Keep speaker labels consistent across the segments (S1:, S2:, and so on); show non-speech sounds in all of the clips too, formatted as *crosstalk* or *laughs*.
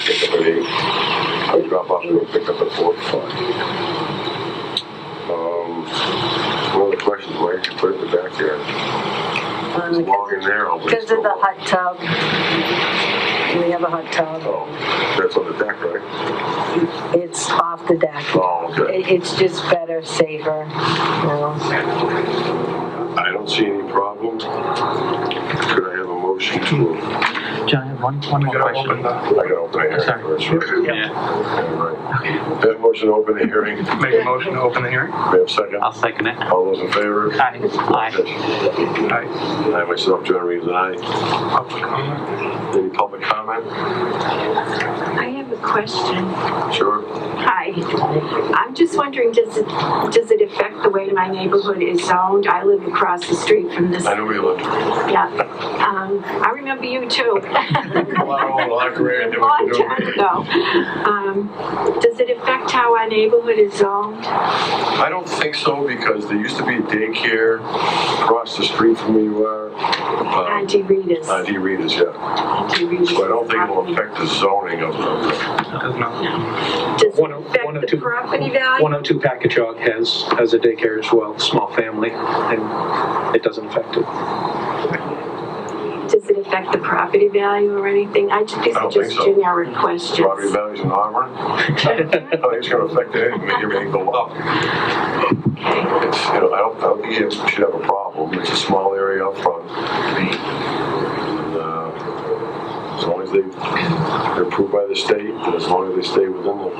S1: pick up at eight. I would drop off and pick up at four. Um, one of the questions, why did you put it in the backyard?
S2: Um,
S1: It's long
S2: Because
S1: and narrow. but it's
S2: because of
S1: so
S2: the
S1: long.
S2: hot tub. We have a hot tub.
S1: Oh, that's on the deck, right?
S2: It's off the deck.
S1: Oh, okay.
S2: It- It's just better, safer, you know.
S1: I don't see any problem. Could I have a motion to?
S3: John, I have one, one more question.
S1: I gotta open a hearing
S3: Sorry.
S1: first. right?
S3: Yeah,
S1: Okay, right. Have a motion to open the hearing. We
S4: Make a motion to open the hearing?
S1: have a second.
S3: I'll second it.
S1: All those in favor?
S3: Aye. Aye.
S4: Aye.
S1: I myself, John Reeves, and I.
S4: Public comment?
S1: Any public comment?
S5: I have a question.
S1: Sure.
S5: Hi. I'm just wondering, does it, does it affect the way my neighborhood is zoned? I live across the street from this.
S1: I know where you live.
S5: Yeah. Um, I remember you too.
S1: A lot of old hot career
S5: *laughs*
S1: and what
S5: Long
S1: you're doing.
S5: time ago. Um, does it affect how our neighborhood is zoned?
S1: Uh, I don't think so because there used to be a daycare across the street from where you are. um,
S5: Auntie Rita's.
S1: ID readers, yeah.
S5: Auntie Rita's.
S1: So I don't think it'll affect the zoning of the,
S4: Does not.
S5: Does it
S6: One oh- one oh
S5: affect the
S6: two-
S5: property value?
S6: 102 Packagug has, has a daycare as well, small family, and it doesn't affect it.
S5: Does it affect the property value or anything? I just, these
S1: I
S5: are
S1: don't think
S5: just
S1: so.
S5: generic questions.
S1: property values in Auburn. I think it's gonna affect it, and make everything go up. It's, you know, I don't, I don't think you should have a problem, it's a small area up front. And, uh, As long as they, they're approved by the state, and as long as they stay within the,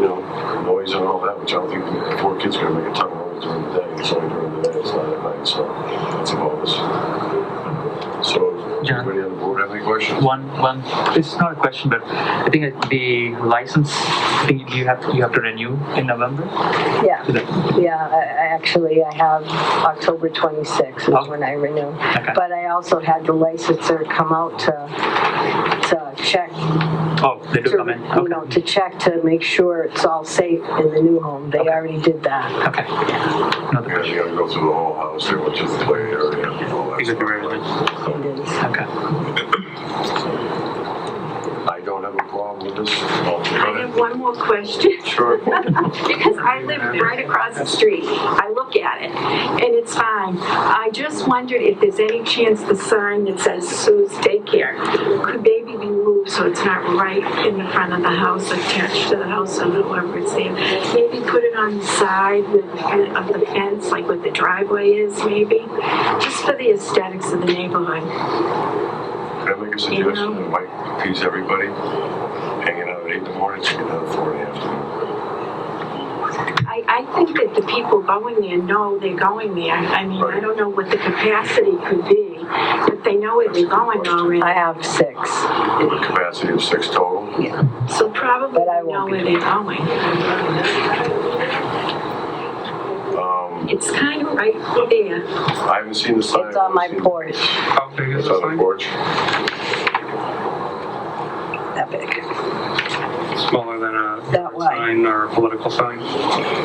S1: you know, noise and all that, which I don't think, the poor kids are gonna make a ton of noise during the day, it's only during the day, it's not at night, so that's a bonus. So, does
S3: John?
S1: anybody on the board have any questions?
S3: One, one, it's not a question, but I think it- the license, I think you have, you have to renew in November?
S2: Yeah,
S3: Is it-
S2: yeah, I- I actually, I have October 26th is
S3: Oh.
S2: when I renew.
S3: Okay.
S2: But I also had the licenser come out to, to check
S3: Oh, they do
S2: to,
S3: come in,
S2: you know,
S3: okay.
S2: to check to make sure it's all safe in the new home. They already did that.
S3: Okay. Another
S1: Yeah,
S3: question.
S1: you gotta go through the whole house, they want you to play area and all that
S3: Exactly
S1: stuff.
S3: right.
S2: It is.
S3: Okay.
S1: I don't have a problem with this.
S5: I have one more question.
S1: Sure.
S5: *laughs* Because I live right across the street. I look at it, and it's fine. I just wondered if there's any chance the sign that says Sue's Daycare could maybe be moved so it's not right in the front of the house, attached to the house or whoever it's there. Maybe put it on the side with- of the fence, like what the driveway is, maybe, just for the aesthetics of the neighborhood.
S1: Can I make a suggestion that might appease everybody? Hanging out at eight in the morning, taking out at four in the afternoon.
S5: I, I think that the people going there know they're going there. I mean, I don't know what the capacity could be, but they know where they're going
S2: I
S5: already.
S2: have six.
S1: With a capacity of six total.
S5: So probably
S2: But I
S5: they know
S2: won't
S5: where
S2: be
S5: they're going.
S1: Um,
S5: It's kind of right there.
S1: I haven't seen the sign.
S2: It's on my
S1: I've seen-
S2: porch,
S4: How big is
S1: It's
S4: the
S1: on the
S4: sign?
S1: porch.
S2: that big.
S4: Smaller than a
S2: That way.
S4: sign or a political sign?
S6: I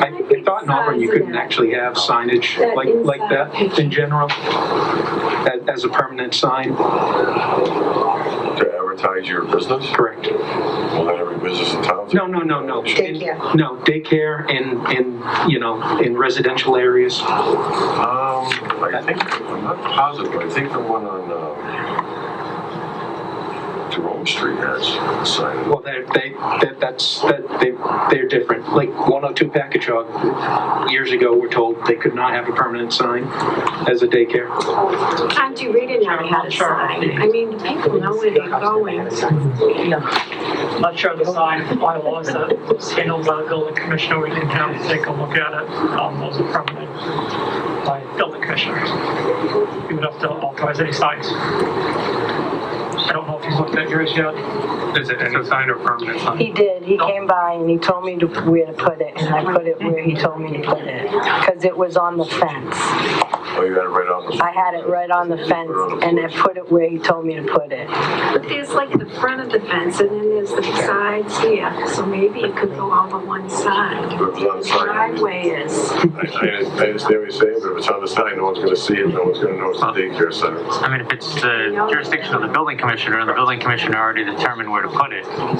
S6: I thought in Auburn you couldn't actually have signage
S5: That
S6: like, like
S5: inside
S6: that
S5: picture.
S6: in general, as, as a permanent sign,
S1: To advertise your business?
S6: correct?
S1: Well, not every business in town.
S6: No, no, no, no.
S2: Daycare.
S6: In- No, daycare and, and, you know, in residential areas.
S1: Um, I think, I'm not positive, but I think the one on, um, Jerome Street has a sign.
S6: Well, they, they, that, that's, that, they, they're different. Like 102 Packagug, years ago, we're told they could not have a permanent sign as a daycare.
S5: Auntie Rita never had a sign. I mean, the people know where they're going.
S7: Not sure the sign bylaws that was handled by the building commissioner, we didn't have to take a look at it, um, those are permanent by building commissioners. You would have to authorize any signs. I don't know if he's looked at yours yet.
S4: Is it any sign or permanent sign?
S2: He did, he came by and he told me to, where to put it, and I put it where he told me to put it. Because it was on the fence.
S1: Oh, you got it right on the.
S2: I had it right on the fence, and I put it where he told me to put it.
S5: But there's like the front of the fence and then there's the sides here, so maybe it could go over one side.
S1: If it's on the sign, you-
S5: Driveway is.
S1: I, I I understand what you're saying, but if it's on the sign, no one's gonna see it, no one's gonna know it's a daycare center.
S3: I mean, if it's the jurisdiction of the building commissioner, and the building commissioner already determined where to put it,